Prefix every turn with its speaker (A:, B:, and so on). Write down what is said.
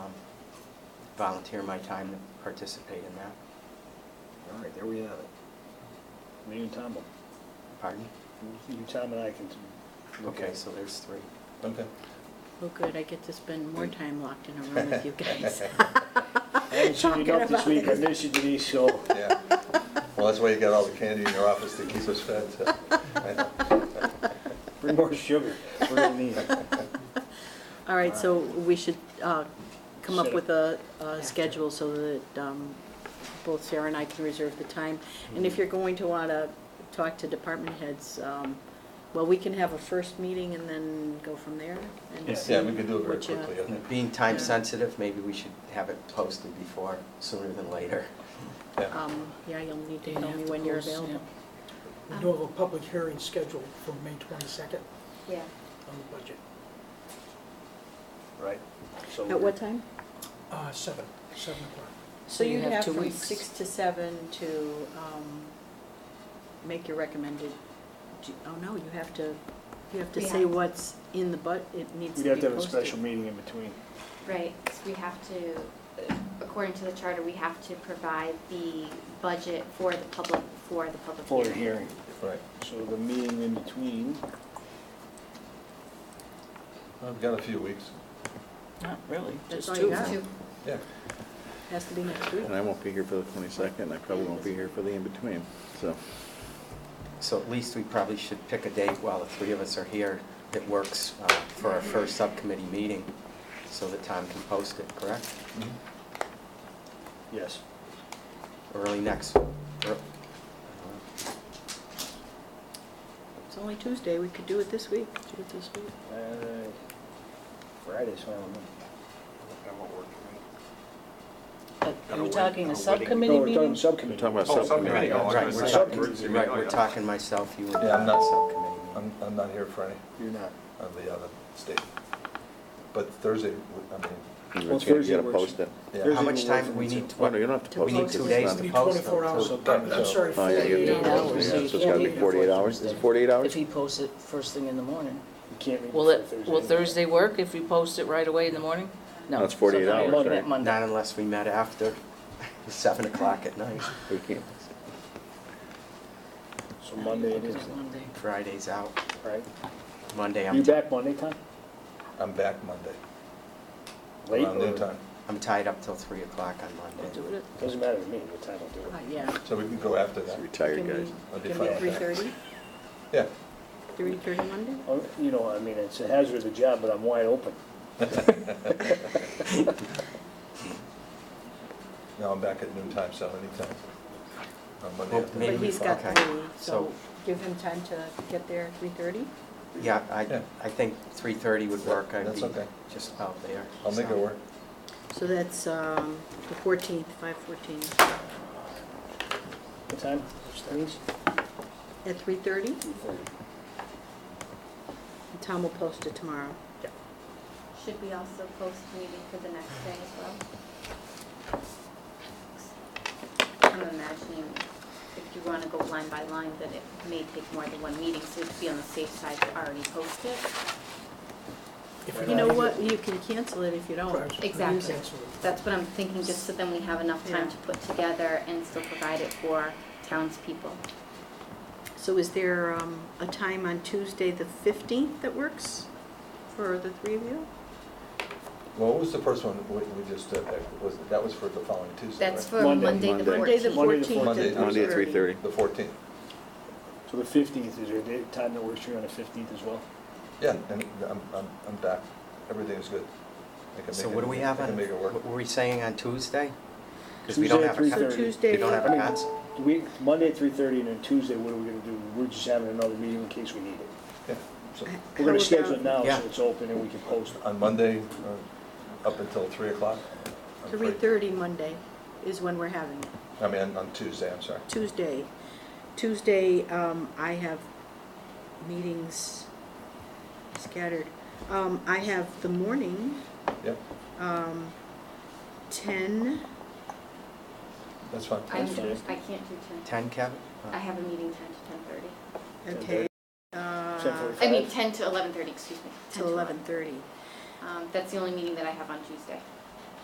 A: um, volunteer my time to participate in that.
B: All right, there we have it.
C: Me and Tom, will-
A: Pardon?
C: you, Tom and I can look at
A: Okay,
C: it.
A: so there's three.
D: Okay.
E: Well, good, I get to spend more time locked in a room with you guys.
C: I haven't seen you
E: Talking
C: enough this
E: about
C: week, I
E: it.
C: miss you Denise, so
D: Yeah. Well, that's why you got all the candy in your office to keep us fed. so.
C: bring more sugar, we're gonna need it.
E: All right, so we should uh, come up
C: Set
E: with a, a schedule so that um, both Sarah and I can reserve the time. And
C: Mm-hmm.
E: if you're going to want to talk to department heads, um, well, we can have a first meeting and then go from there
C: Yeah.
E: and see.
D: Yeah, we can do it very
E: what you-
D: quickly, I think.
A: Being time
E: Yeah.
A: sensitive, maybe we should have it posted before, sooner than later.
D: Yeah.
E: Um, yeah, you'll need to
F: They'd
E: tell
F: have
E: me
F: to
E: when you're
F: post, yeah.
E: available.
G: We do have a public hearing scheduled for May 22nd
H: Yeah,
G: on the budget,
C: Right. So
E: At what time?
G: Uh, 7, 7 o'clock.
E: So
F: you
E: you
F: have
E: have
F: two
E: from
F: weeks.
E: six to seven to um, make your recommended, do- oh no, you have to, you have to
H: We
E: say
H: have-
E: what's in the bud, it needs to
C: We'd
E: be
C: have to have a
E: posted.
C: special meeting in between.
H: right, 'cause we have to, according to the charter, we have to provide the budget for the public, for the public
C: For the hearing.
H: hearing.
D: Right.
C: So the meeting in between,
D: I've got a few weeks.
F: Not really,
E: That's
F: just
E: all
F: two.
E: you got.
H: Two.
D: Yeah.
E: Has to be next week.
I: And I won't be here for the 22nd, and I probably won't be here for the in-between, so.
A: So at least we probably should pick a date while the three of us are here that works uh, for our first subcommittee meeting, so that Tom can post it, correct?
D: Mhm.
C: yes.
A: Early next, or-
E: It's only Tuesday, we could do it this week. Do it this week.
C: Uh, Friday's fine. with me.
F: Are we talking a
C: No,
F: subcommittee
C: we're talking
F: meeting?
I: We're
C: subcommittee.
I: talking about
D: Oh, subcommittee,
I: subcommittee.
A: Right, we're
C: Subcommittee.
A: talking, right, we're talking myself, you and
D: Yeah, I'm not-
A: subcommittee meeting.
D: I'm, I'm not here Friday,
C: You're not.
D: I'm the other state. But Thursday, I mean,
I: You
C: Well,
I: just gotta-
C: Thursday
I: you gotta
C: works.
I: post it.
D: yeah.
A: How much
C: Thursday will
A: time,
C: work
A: we
C: for me
A: need,
C: too.
I: Oh, no, you don't have to
A: We
I: post
A: need
I: it.
A: two
I: It's
A: days
I: not-
A: to
G: We need
A: post
G: 24
A: them,
G: hours,
A: too.
G: I'm sorry,
I: Oh, yeah, you
G: 48
I: have to
G: hours.
I: post it, yeah, so it's
F: Yeah,
I: gotta be
F: we-
I: 48 hours. Is it 48
F: If
I: hours?
F: he posts it first thing in the morning.
C: You can't meet
F: Will
C: before
F: it, will Thursday work if we post it right away in the morning? No.
I: That's 48
F: sometime
I: hours,
F: we're looking
I: right?
F: at Monday.
A: Not unless we met after seven o'clock at night,
I: We can't.
C: So Monday it is,
F: It's Monday.
A: Friday's out,
C: right?
A: Monday
C: You
A: I'm,
C: back Monday, Tom?
D: I'm back Monday,
C: Late
D: around
C: or?
D: noon time.
A: I'm tied up till three o'clock on
F: We'll
A: Monday.
F: do it,
C: Doesn't matter to me what time I do
E: Uh,
C: it.
E: Yeah.
D: So we can go after
I: It's
D: that.
I: Retired
E: Can we-
I: guys.
D: I'll be
E: Can
D: fine
E: we,
D: with
E: three
D: that.
E: thirty?
D: Yeah.
E: Three thirty Monday?
C: Oh, You know, I mean, it's a hazard of the job, but I'm wide open.
D: No, I'm back at noon time, so anytime. On Monday
A: Well,
D: afternoon.
A: Maybe
E: But
A: we-
E: he's got
A: okay.
E: three,
A: So-
E: so give him time to get there at three thirty?
A: Yeah, I,
D: Yeah.
A: I think three thirty would work, I'd
D: That's
A: be
D: okay.
A: just out there.
D: I'll make it
A: so.
D: work.
E: So that's um, the fourteenth, five fourteen,
C: What time? Which time is it?
E: at three thirty?
C: Three-thirty.
E: Tom will post it tomorrow.
H: Should we also post meeting for the next day as well? I'm imagining if you wanna go line by line, that it may take more than one meeting, so to be on the safe side, to already post it.
G: If we
E: You know
G: don't
E: what, you can cancel it if you don't.
G: Right.
H: Exactly.
G: cancel it.
H: That's what I'm thinking, just so then we have enough time to put together and still provide it for townspeople.
E: So is there um, a time on Tuesday, the fifteenth, that works for the three of you?
D: Well, what was the first one we we just did? That Was, that was for the following Tuesday, right?
H: That's for
C: Monday.
H: Monday the
I: Monday.
E: Monday, the
H: 14th.
C: Monday the
E: fourteenth
D: Monday,
E: at
I: Monday
E: three
I: at
E: thirty.
I: 3:30.
D: The 14th.
C: So the fifteenth, is there a day- time that works for you on the fifteenth as well?
D: Yeah, and I'm, I'm, I'm back. Everything's good. I can
A: So
D: make
A: what
D: it-
A: do we have
D: I
A: on,
D: can make it work.
A: what were we saying on Tuesday? Because we don't have a,
C: Tuesday at
E: So
A: con-
C: 3:30.
A: we
E: Tuesday,
A: don't have
C: I
A: a
C: mean-
A: cons,
C: Do we, Monday at three-thirty, and then Tuesday, what are we gonna do? We're just having another meeting in case we need it.
D: Yeah, so
C: We're
E: How
C: gonna schedule it
E: about-
C: now,
A: Yeah.
C: so it's open and we can post it.
D: on Monday, uh, up until 3 o'clock? I'm free.
E: three thirty Monday is when we're having it.
D: I mean, on- on Tuesday, I'm sorry.
E: Tuesday. Tuesday, um, I have meetings scattered. Um, I have the morning,
D: Yep,
E: um, ten,
D: that's fine.
H: I'm, I
C: That's
H: can't
C: fine.
H: do 10.
A: ten, Kevin?
H: I have a meeting 10 to 10:30.
E: okay,
C: Ten
E: uh,
C: forty-five.
H: I mean, 10 to 11:30, excuse me. 10
E: till eleven thirty.
H: Um, That's the only meeting that I have on Tuesday.